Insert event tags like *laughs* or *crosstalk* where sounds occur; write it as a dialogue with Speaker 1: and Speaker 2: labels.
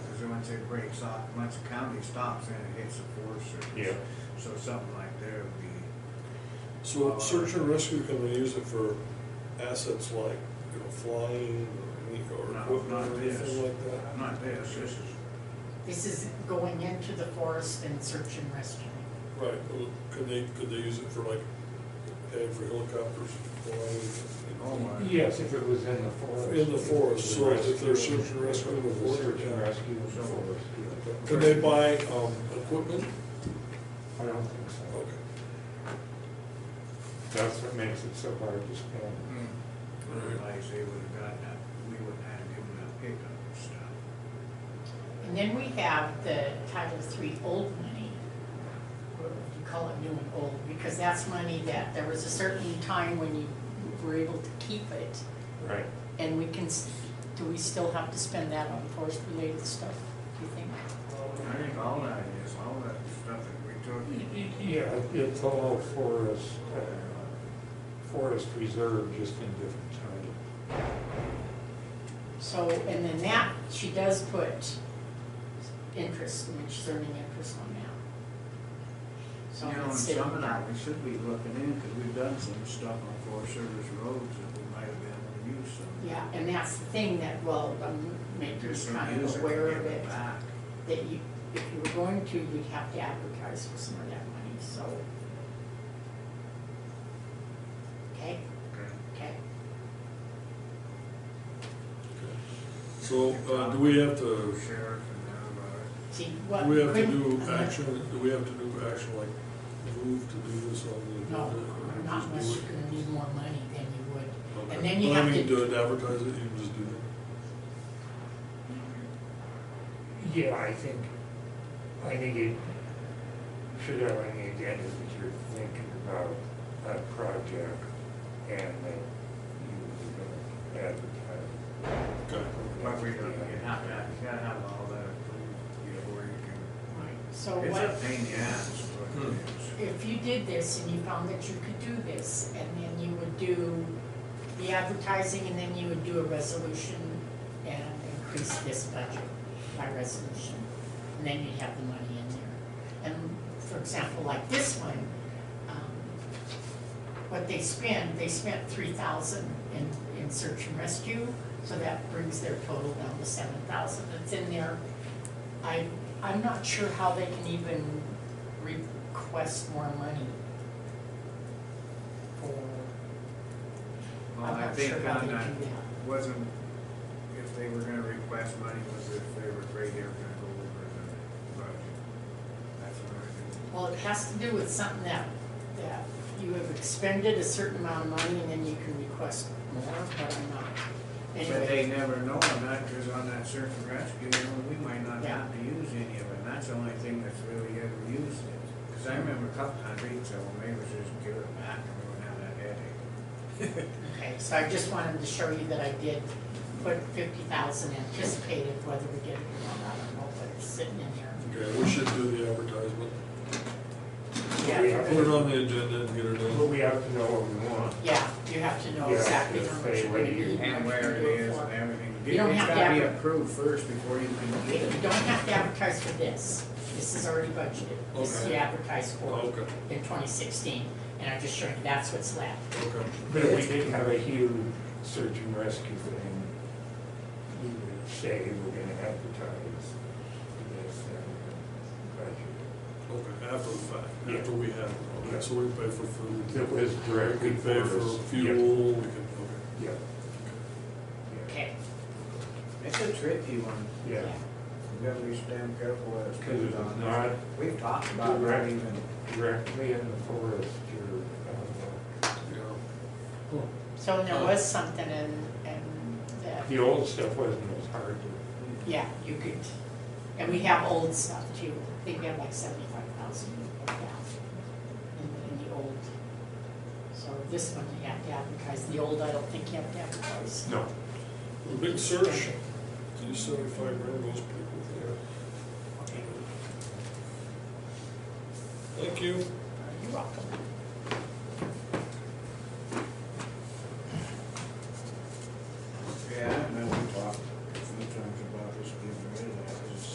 Speaker 1: once it breaks off, once the county stops and it hits the Forest Service.
Speaker 2: Yeah.
Speaker 1: So something like there would be,
Speaker 3: So search and rescue, can they use it for assets like, you know, flying or any- or
Speaker 1: not,
Speaker 3: equipment
Speaker 1: not
Speaker 3: or
Speaker 1: this,
Speaker 3: anything like that?
Speaker 1: not this, this is,
Speaker 4: This is going into the forest and search and rescue.
Speaker 3: Right, well, could they, could they use it for like, hey, for helicopters
Speaker 1: oh
Speaker 3: flying?
Speaker 1: my.
Speaker 2: Yes, if it was in the forest.
Speaker 3: In the forest, so if
Speaker 2: Rescue.
Speaker 3: they're search and rescue in the
Speaker 2: If it was
Speaker 3: forest,
Speaker 2: Search and
Speaker 3: yeah.
Speaker 2: rescue in the forest. yeah.
Speaker 3: Could they buy, um, equipment?
Speaker 2: I don't think so.
Speaker 3: Okay.
Speaker 2: That's what makes it so hard to spend.
Speaker 1: Mm. Otherwise, they would have gotten that, we wouldn't have given that pickup and stuff.
Speaker 4: And then we have the Title III old money. Or if You call it new and old, because that's money that, there was a certain time when you were able to keep it.
Speaker 2: Right.
Speaker 4: And we can, s- do we still have to spend that on forest-related stuff, do you think?
Speaker 1: I think all that is, all that stuff that we took,
Speaker 2: Yeah, it's all forest, uh, forest reserve, just in different title.
Speaker 4: So, and then that, she does put interest, which is earning interest on that. So
Speaker 1: you know, and
Speaker 4: it's sitting
Speaker 1: some of
Speaker 4: there.
Speaker 1: that we should be looking in, because we've done some stuff on Forest Service roads that we might have been able to use some.
Speaker 4: Yeah, and that's the thing that, well, um, maybe
Speaker 1: Just
Speaker 4: you're
Speaker 1: some
Speaker 4: kind
Speaker 1: use
Speaker 4: of
Speaker 1: it,
Speaker 4: aware
Speaker 1: give
Speaker 4: of it,
Speaker 1: back.
Speaker 4: that you, if you were going to, you'd have to advertise for some of that money, so. Okay,
Speaker 1: Okay.
Speaker 4: okay.
Speaker 3: So, uh, do we have to,
Speaker 1: Sheriff and
Speaker 4: See,
Speaker 3: do
Speaker 4: what.
Speaker 3: we have to
Speaker 4: couldn't- uh,
Speaker 3: do action, do we have to do action like move to do this on the
Speaker 4: No,
Speaker 3: agenda? or
Speaker 4: not
Speaker 3: just do
Speaker 4: unless
Speaker 3: it?
Speaker 4: you're gonna need more money than you would.
Speaker 3: Okay.
Speaker 4: and then you
Speaker 3: Well, I
Speaker 4: have
Speaker 3: mean,
Speaker 4: to-
Speaker 3: Do it, advertise it, you can just do that.
Speaker 2: Yeah, I think, I think it should have on the agenda that you're thinking about a project and that you would advertise.
Speaker 3: Okay.
Speaker 1: But we don't, you have to, you gotta have all that approved, you know, where you can,
Speaker 4: Right, so
Speaker 1: it's
Speaker 4: what,
Speaker 1: a pain in the ass, but it is.
Speaker 3: Hmm.
Speaker 4: if you did this and you found that you could do this, and then you would do the advertising, and then you would do a resolution and increase this budget by resolution, and then you'd have the money in there. And for example, like this one, um, what they spend, they spent three thousand in, in search and rescue, so that brings their total down to seven thousand, it's in there. I, I'm not sure how they can even request more money for,
Speaker 1: Well,
Speaker 4: I'm
Speaker 1: I
Speaker 4: not
Speaker 1: think
Speaker 4: sure how
Speaker 1: on
Speaker 4: they
Speaker 1: that
Speaker 4: do
Speaker 1: wasn't, if they were gonna request money, was if they were afraid they were gonna go over the budget. That's what I
Speaker 4: well, it has to do with something that, that you have expended a certain amount of money and then you can request more, but I'm not.
Speaker 1: do. But they
Speaker 4: Anyway,
Speaker 1: never know on that, cause on that search and rescue, you know, we might not
Speaker 4: Yeah.
Speaker 1: have to use any of it, and that's the only thing that's really ever used it. Cause I remember a couple times, we'd say, well, maybe we should just give it back, and we wouldn't have that headache.
Speaker 4: *laughs* okay, so I just wanted to show you that I did put fifty thousand anticipated, whether we get it or not, I don't know, but it's sitting in there.
Speaker 3: Okay, we should do the advertisement.
Speaker 2: Yeah.
Speaker 4: Yeah,
Speaker 3: Put it on the agenda and get it
Speaker 2: But
Speaker 3: done.
Speaker 2: we have to know what we want.
Speaker 4: yeah, you have to know
Speaker 2: Yeah,
Speaker 4: exactly
Speaker 2: just
Speaker 4: how much
Speaker 2: say
Speaker 4: you're
Speaker 2: what
Speaker 4: gonna
Speaker 2: you
Speaker 4: need.
Speaker 1: and where it is and everything.
Speaker 4: You don't have to
Speaker 1: It's gotta be
Speaker 4: adver-
Speaker 1: approved first before you can
Speaker 4: Okay,
Speaker 1: get
Speaker 4: you
Speaker 1: it.
Speaker 4: don't have to advertise for this, this is already budgeted, this is
Speaker 3: Okay.
Speaker 4: advertised for
Speaker 3: Okay,
Speaker 4: in twenty sixteen, and I'm just showing you that's what's left.
Speaker 3: okay.
Speaker 2: But if we did have a huge search and rescue thing, we would say we're gonna advertise this and
Speaker 3: Okay, after the fact,
Speaker 2: Yeah.
Speaker 3: after we have, it. okay, so we pay for food.
Speaker 2: budget. It was
Speaker 3: We
Speaker 2: directly
Speaker 3: can pay
Speaker 2: for
Speaker 3: for
Speaker 2: us.
Speaker 3: fuel, we can,
Speaker 2: Yeah, yeah,
Speaker 4: Okay,
Speaker 1: It's a tricky one.
Speaker 2: yeah,
Speaker 1: You gotta be damn careful as
Speaker 2: because
Speaker 1: it's
Speaker 2: it's
Speaker 1: on.
Speaker 2: not
Speaker 1: We've talked about not
Speaker 2: Correct.
Speaker 1: even,
Speaker 2: directly in the forest, you're, uh,
Speaker 3: okay, yeah.
Speaker 4: so there was something in, in
Speaker 2: the
Speaker 4: the,
Speaker 2: old stuff wasn't as hard to
Speaker 4: yeah, you could, and we have old stuff too, I think we have like seventy-five thousand of that in, in the old. So this one you have to advertise, the old I don't think you have to advertise.
Speaker 2: No.
Speaker 3: A Big search, do seventy-five grand goes pretty quick.
Speaker 4: Okay,
Speaker 3: Thank you.
Speaker 4: you're welcome.